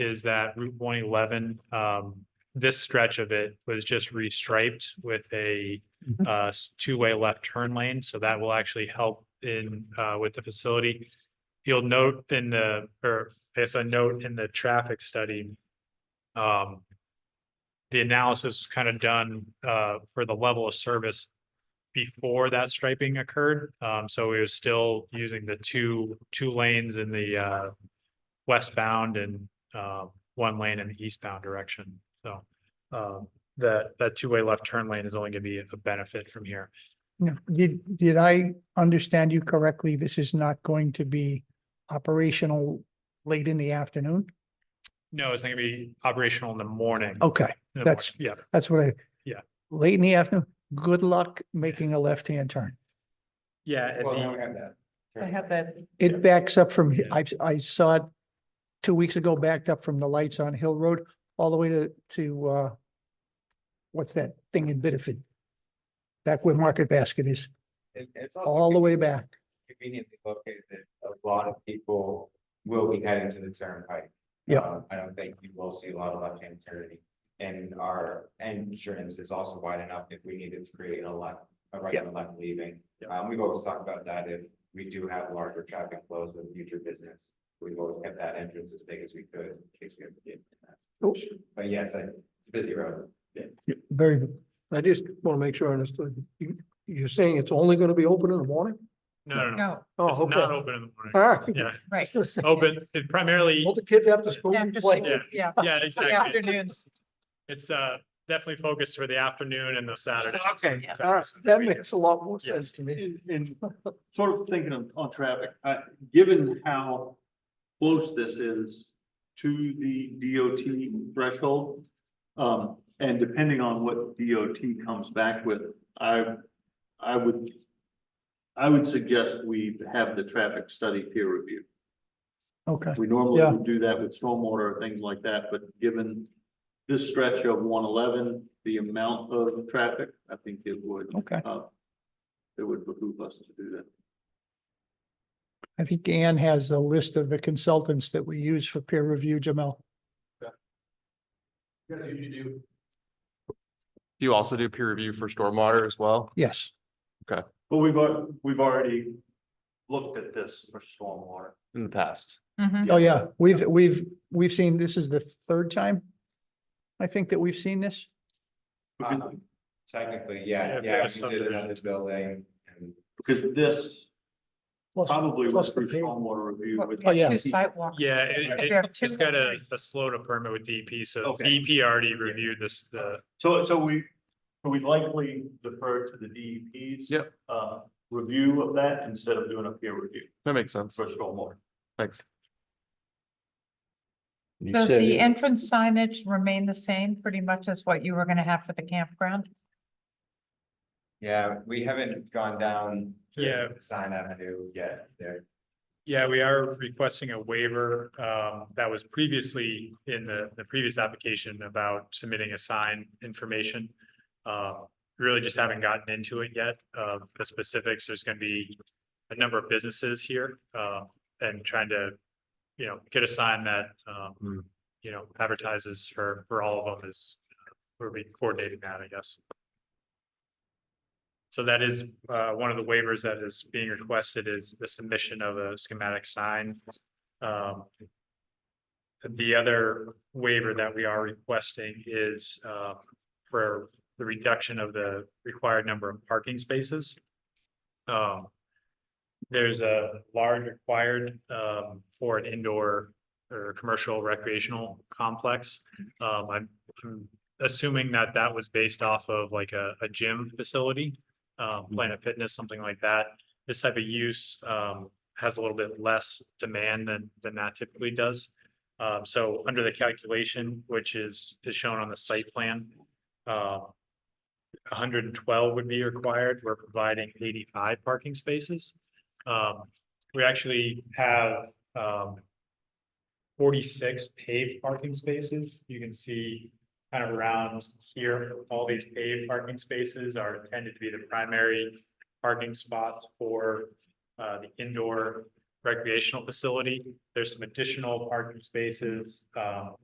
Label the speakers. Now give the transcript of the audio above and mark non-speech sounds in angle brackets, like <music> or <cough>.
Speaker 1: is that Route one eleven, um, this stretch of it was just restriped with a
Speaker 2: Mhm.
Speaker 1: uh, s- two-way left turn lane, so that will actually help in, uh, with the facility. You'll note in the, or as a note in the traffic study, um, the analysis was kind of done, uh, for the level of service before that striping occurred. Um, so we were still using the two, two lanes in the, uh, westbound and, um, one lane in the eastbound direction. So, um, that, that two-way left turn lane is only gonna be a benefit from here.
Speaker 2: No, did, did I understand you correctly? This is not going to be operational late in the afternoon?
Speaker 1: No, it's not gonna be operational in the morning.
Speaker 2: Okay,
Speaker 1: In the
Speaker 2: Oh, that's-
Speaker 1: morning, Yeah.
Speaker 2: that's what I.
Speaker 1: Yeah.
Speaker 2: Late in the afternoon, good luck making a left-hand turn.
Speaker 1: Yeah, and
Speaker 3: Well,
Speaker 1: the-
Speaker 3: we have that.
Speaker 4: I have that.
Speaker 1: Yeah.
Speaker 2: It backs up from,
Speaker 1: Yeah.
Speaker 2: I, I saw it two weeks ago, backed up from the lights on Hill Road all the way to, to, uh, what's that thing in Biddeford? Back where Market Basket is,
Speaker 3: It- It's also
Speaker 2: all the way back.
Speaker 3: Conveniently located, that a lot of people will be heading to the turnpike.
Speaker 2: Yeah.
Speaker 3: Um, I don't think you will see a lot of left-hand turning, and our entrance is also wide enough if we needed to create a left, a right and a left leaving. Um, we've always talked about that, if we do have larger traffic flows with future business, we've always kept that entrance as big as we could, in case we ever get in that.
Speaker 5: Oh.
Speaker 3: situation. But yes, I- it's a busy road.
Speaker 2: Very good.
Speaker 5: I just want to make sure I understood. You, you're saying it's only going to be open in the morning?
Speaker 1: no, no, no,
Speaker 4: No,
Speaker 5: Oh,
Speaker 1: it's
Speaker 5: okay.
Speaker 1: not open in the
Speaker 5: All
Speaker 1: morning.
Speaker 5: right.
Speaker 1: Yeah,
Speaker 4: right.
Speaker 1: open, it primarily,
Speaker 5: <laughs> All the kids after school.
Speaker 4: After
Speaker 5: play.
Speaker 4: school, yeah,
Speaker 1: yeah,
Speaker 4: in the
Speaker 1: exactly.
Speaker 4: afternoons.
Speaker 1: It's uh definitely focused for the afternoon and the Saturday.
Speaker 2: Oh,
Speaker 5: Okay, all right. That makes a lot more
Speaker 1: Yes.
Speaker 5: sense to me.
Speaker 6: And, and sort of thinking on, on traffic, uh, given how close this is to the DOT threshold, um, and depending on what DOT comes back with, I, I would, I would suggest we have the traffic study peer review.
Speaker 2: Okay,
Speaker 6: We normally
Speaker 2: Yeah.
Speaker 6: would do that with stormwater or things like that, but given this stretch of one eleven, the amount of traffic, I think it would,
Speaker 2: okay.
Speaker 6: uh, it would behoove us to do that.
Speaker 2: I think Ann has a list of the consultants that we use for peer review, Jamel.
Speaker 7: You also do peer review for stormwater as well?
Speaker 2: Yes,
Speaker 6: But we've, al- we've already looked at this for stormwater.
Speaker 7: In the past.
Speaker 4: Mhm.
Speaker 2: oh yeah, we've, we've, we've seen, this is the third time. I think that we've seen this.
Speaker 6: Because,
Speaker 3: Um, Technically,
Speaker 1: Yeah,
Speaker 3: yeah,
Speaker 1: if
Speaker 3: yeah,
Speaker 1: there's
Speaker 3: we did it
Speaker 1: subdivision.
Speaker 3: on this building and
Speaker 6: because this
Speaker 2: Plus-
Speaker 6: probably
Speaker 2: plus
Speaker 6: was
Speaker 2: the
Speaker 6: through
Speaker 2: pavement.
Speaker 6: stormwater review with.
Speaker 2: Oh, yeah.
Speaker 4: Two sidewalks.
Speaker 1: Yeah, it-
Speaker 4: If
Speaker 1: it-
Speaker 4: you have two
Speaker 1: it's got
Speaker 4: or
Speaker 1: a,
Speaker 4: three.
Speaker 1: a SLOTA permit with DP, so
Speaker 3: Okay.
Speaker 1: DP already reviewed this, the,
Speaker 6: So, so we, we likely defer to the DEP's.
Speaker 7: Yep.
Speaker 6: Uh, review of that instead of doing a peer review
Speaker 7: That makes sense.
Speaker 6: for stormwater.
Speaker 7: Thanks.
Speaker 4: Does the entrance signage remain the same, pretty much as what you were gonna have for the campground?
Speaker 3: Yeah, we haven't gone down. to
Speaker 1: Yeah.
Speaker 3: Sign Avenue yet there.
Speaker 1: yeah, we are requesting a waiver, um, that was previously in the, the previous application about submitting a sign information. Uh, really just haven't gotten into it yet, uh, the specifics, there's gonna be a number of businesses here, uh, and trying to, you know, get a sign that, um, you know, advertises for, for all of them is, uh, we'll be coordinating that, I guess. So that is, uh, one of the waivers that is being requested is the submission of a schematic sign. Um. The other waiver that we are requesting is, uh, for the reduction of the required number of parking spaces. Um. There's a large required, um, for an indoor or commercial recreational complex. Um, I'm- I'm assuming that that was based off of like a, a gym facility um, Planet Fitness, something like that. This type of use, um, has a little bit less demand than, than that typically does. Um, so under the calculation, which is, is shown on the site plan, uh, hundred and twelve would be required. We're providing eighty-five parking spaces. Um, we actually have, um, forty-six paved parking spaces. You can see kind of around here, all these paved parking spaces are intended to be the primary parking spots for uh, the indoor recreational facility. There's some additional parking spaces, um,